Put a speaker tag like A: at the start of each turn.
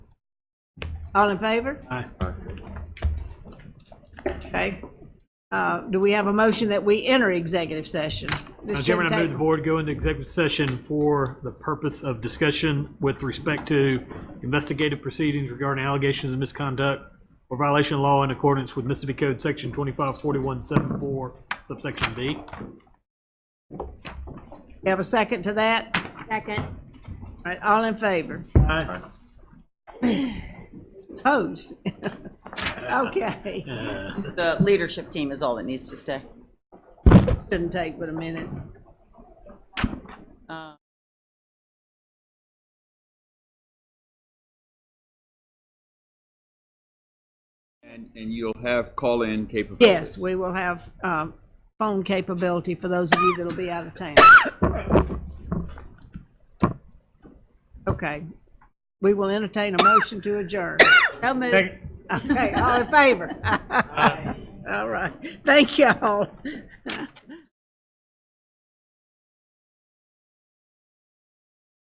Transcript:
A: All in favor?
B: Aye.
A: Okay. Uh, Do we have a motion that we enter executive session?
B: Mr.
A: Ms.
B: Chairman, I move the
A: Taylor.
B: board go into executive session for the purpose of discussion with respect to investigative proceedings regarding allegations of misconduct or violation of law in accordance with Mississippi Code Section 254174 subsection D.
A: We Have a second to that?
C: Second.
A: All right, all in favor?
B: Aye.
A: Opposed? Okay.
D: The leadership team is all that needs to stay.
A: Didn't take but a minute.
E: And, and you'll have call-in capability?
A: Yes, we will have um, phone capability for those of you that'll be out of town. Okay. We will entertain a motion to adjourn.
C: So moved.
B: Second.
A: Okay, all in favor? All right. Thank y'all.